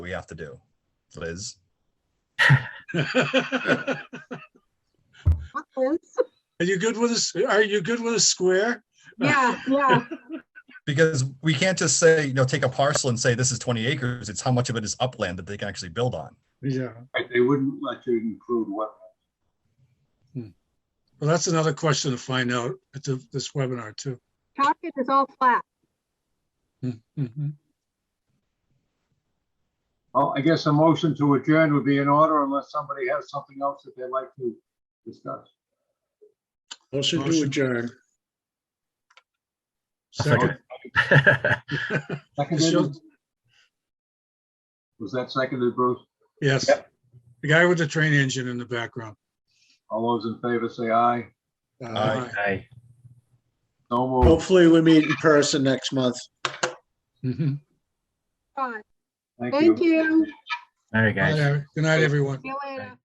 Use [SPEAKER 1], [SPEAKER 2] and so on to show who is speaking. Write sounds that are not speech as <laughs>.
[SPEAKER 1] we have to do. Liz,
[SPEAKER 2] <laughs> Are you good with a, s- are you good with a square?
[SPEAKER 3] Yeah, yeah,
[SPEAKER 1] because we can't just say, you know, take a parcel and say this is 20 acres. It's how much of it is upland that they can actually build on.
[SPEAKER 2] Yeah.
[SPEAKER 4] Right, They wouldn't let you include what,
[SPEAKER 2] Well, that's another question to find out at the- this webinar too.
[SPEAKER 3] Concord is all flat.
[SPEAKER 2] Mhm.
[SPEAKER 4] well, I guess a motion to adjourn would be in order unless somebody has something else that they'd like to discuss.
[SPEAKER 5] Motion to
[SPEAKER 2] Motion.
[SPEAKER 5] adjourn.
[SPEAKER 2] Second.
[SPEAKER 4] Seconded? Was that seconded, Bruce?
[SPEAKER 2] Yes. The guy with the train engine in the background.
[SPEAKER 4] All those in favor say aye.
[SPEAKER 1] Aye.
[SPEAKER 6] Aye.
[SPEAKER 4] No move.
[SPEAKER 5] Hopefully we meet in person next month.
[SPEAKER 2] Mhm.
[SPEAKER 3] Fine.
[SPEAKER 4] Thank you.
[SPEAKER 3] Thank you.
[SPEAKER 6] All right,
[SPEAKER 2] Bye,
[SPEAKER 6] guys.
[SPEAKER 2] Larry. Good night, everyone.
[SPEAKER 3] See you